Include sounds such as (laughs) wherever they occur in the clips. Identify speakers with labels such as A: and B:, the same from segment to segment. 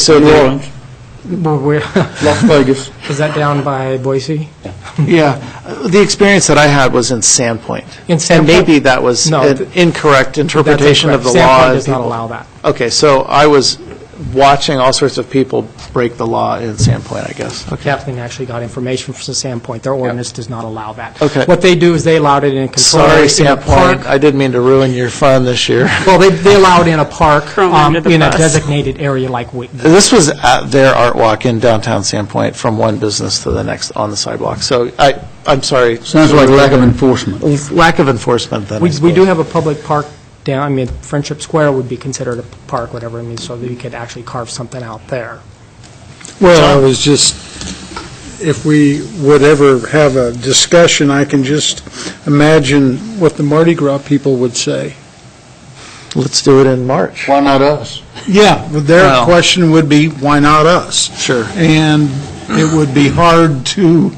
A: St. Lawrence,
B: Well, where-
A: Las Vegas.
B: (laughs) Is that down by Boise?
C: (laughs) Yeah, Uh, the experience that I had was in Sandpoint.
B: In
C: And
B: Sandpoint?
C: maybe that was
B: No,
C: an
B: th-
C: incorrect interpretation of the
B: That's
C: law.
B: incorrect. Sandpoint
C: and
B: does not
C: people-
B: allow that.
C: Okay, so I was watching all sorts of people break the law in Sandpoint, I guess.
B: Kathleen actually got information from Sandpoint. Their ordinance does not allow that.
C: Okay.
B: What they do is they allowed it in a control.
C: Sorry,
B: in a
C: Sandpoint,
B: park.
C: I didn't mean to ruin your fun this year. (laughs)
B: Well, they, they allow it in a park,
D: Throw 'em
B: um,
D: under the
B: in a
D: bus.
B: designated area like Wheaton.
C: This was at their art walk in downtown Sandpoint, from one business to the next on the sidewalk. So I, I'm sorry.
A: Sounds like lack of enforcement.
C: Lack of enforcement, then, I
B: We, we
C: suppose.
B: do have a public park down, I mean, Friendship Square would be considered a park, whatever it means, so that you could actually carve something out there.
E: Well, I was just, if we would ever have a discussion, I can just imagine what the Mardi Gras people would say.
C: Let's do it in March.
A: Why not us?
E: Yeah, but their
C: Well-
E: question would be, why not us?
C: Sure.
E: And it would be hard to,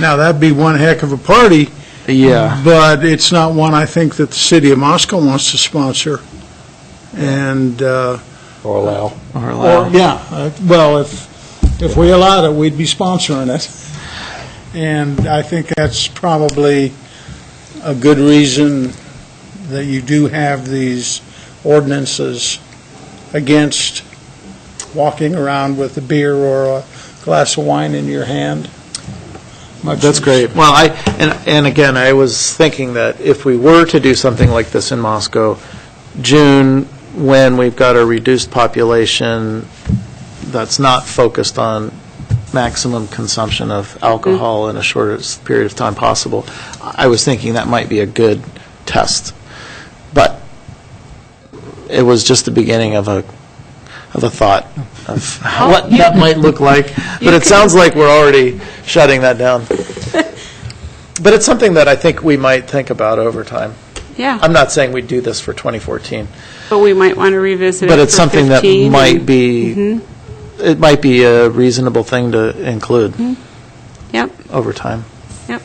E: now, that'd be one heck of a party,
C: Yeah.
E: but it's not one I think that the city of Moscow wants to sponsor. And, uh,
A: Or allow.
C: Or allow.
E: or, yeah, uh, well, if, if we allowed it, we'd be sponsoring it. And I think that's probably a good reason that you do have these ordinances against walking around with a beer or a glass of wine in your hand. Much
C: That's
E: as-
C: great. Well, I, and, and again, I was thinking that if we were to do something like this in Moscow, June, when we've got a reduced population that's not focused on maximum consumption of alcohol in a shortest period of time possible, I was thinking that might be a good test. But it was just the beginning of a, of a thought of what that might look
D: (laughs)
C: like. But it sounds like we're already shutting that down. But it's something that I think we might think about over time.
D: Yeah,
C: I'm not saying we'd do this for 2014,
D: but we might want to revisit it
C: but it's
D: for
C: something that
D: 15
C: might
D: and- Mm-hmm.
C: be, it might be a reasonable thing to include
D: Yep,
C: over time.
D: yep.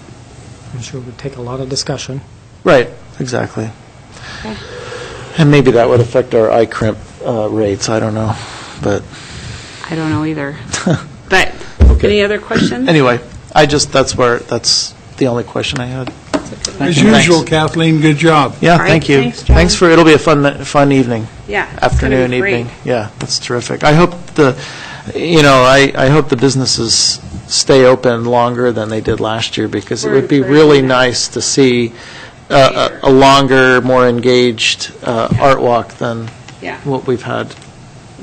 B: I'm sure it would take a lot of discussion.
C: Right, exactly. And maybe that would affect our eye crimp uh, rates, I don't know, but.
D: I don't
C: (laughs)
D: know either. But,
C: Okay.
D: any other questions?
C: Anyway, I just, that's where, that's the only question I had.
E: As
C: you.
E: usual,
C: Thanks.
E: Kathleen, good job.
C: Yeah,
D: All right,
C: thank you.
D: thanks, John.
C: Thanks for, it'll be a fun, fun evening.
D: Yeah, it's gonna be
C: Afternoon,
D: great.
C: evening. Yeah, that's terrific. I hope the, you know, I, I hope the businesses stay open longer than they did last year, because it
D: We're
C: would be
D: encouraging
C: really
D: that.
C: nice to see uh, a a longer, more engaged uh, art walk than
D: Yeah.
C: what we've had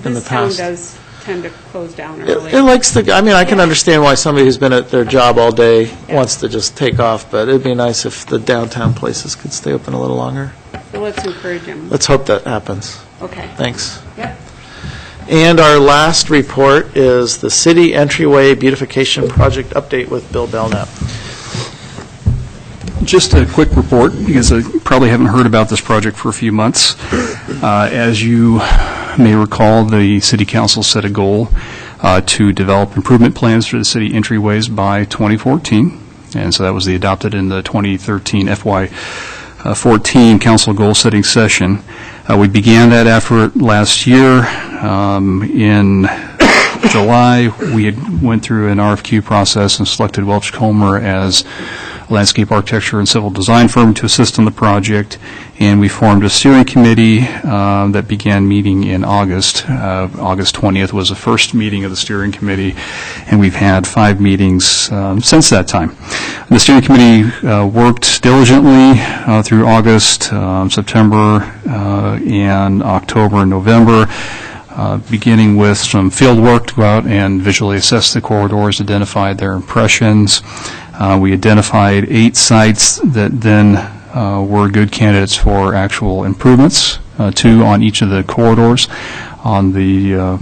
C: in the
D: This town
C: past.
D: does tend to close down
C: It it
D: early.
C: likes the, I mean, I can
D: Yeah.
C: understand why somebody who's been at their job all day wants to just take off, but it'd be nice if the downtown places could stay open a little longer.
D: So let's encourage them.
C: Let's hope that happens.
D: Okay.
C: Thanks.
D: Yep.
C: And our last report is the City Entryway Beautification Project Update with Bill Belknap.
F: Just a quick report, because I probably haven't heard about this project for a few months. Uh, As you may recall, the city council set a goal uh, to develop improvement plans for the city entryways by 2014, and so that was the adopted in the 2013 FY14 uh, council goal-setting session. Uh, We began that effort last year um, in July, we had went through an RFQ process and selected Welch Comer as landscape architecture and civil design firm to assist in the project, and we formed a steering committee um, that began meeting in August. Uh, August 20th was the first meeting of the steering committee, and we've had five meetings um, since that time. The steering committee uh, worked diligently uh, through August, um, September, uh, and October and November uh, beginning with some field work to go out and visually assess the corridors, identify their impressions. Uh, We identified eight sites that then uh, were good candidates for actual improvements, uh, two on each of the corridors. On the uh,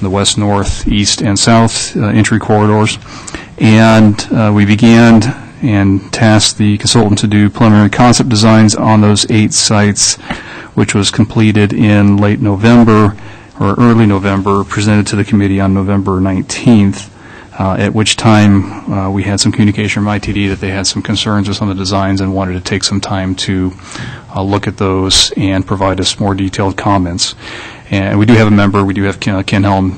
F: the west, north, east, and south uh, entry corridors. And uh, we began and tasked the consultant to do preliminary concept designs on those eight sites, which was completed in late November or early November, presented to the committee on November 19th, uh, at which time uh, we had some communication from ITD that they had some concerns with some of the designs and wanted to take some time to uh, look at those and provide us more detailed comments. And we do have a member, we do have Ken uh, Ken Helm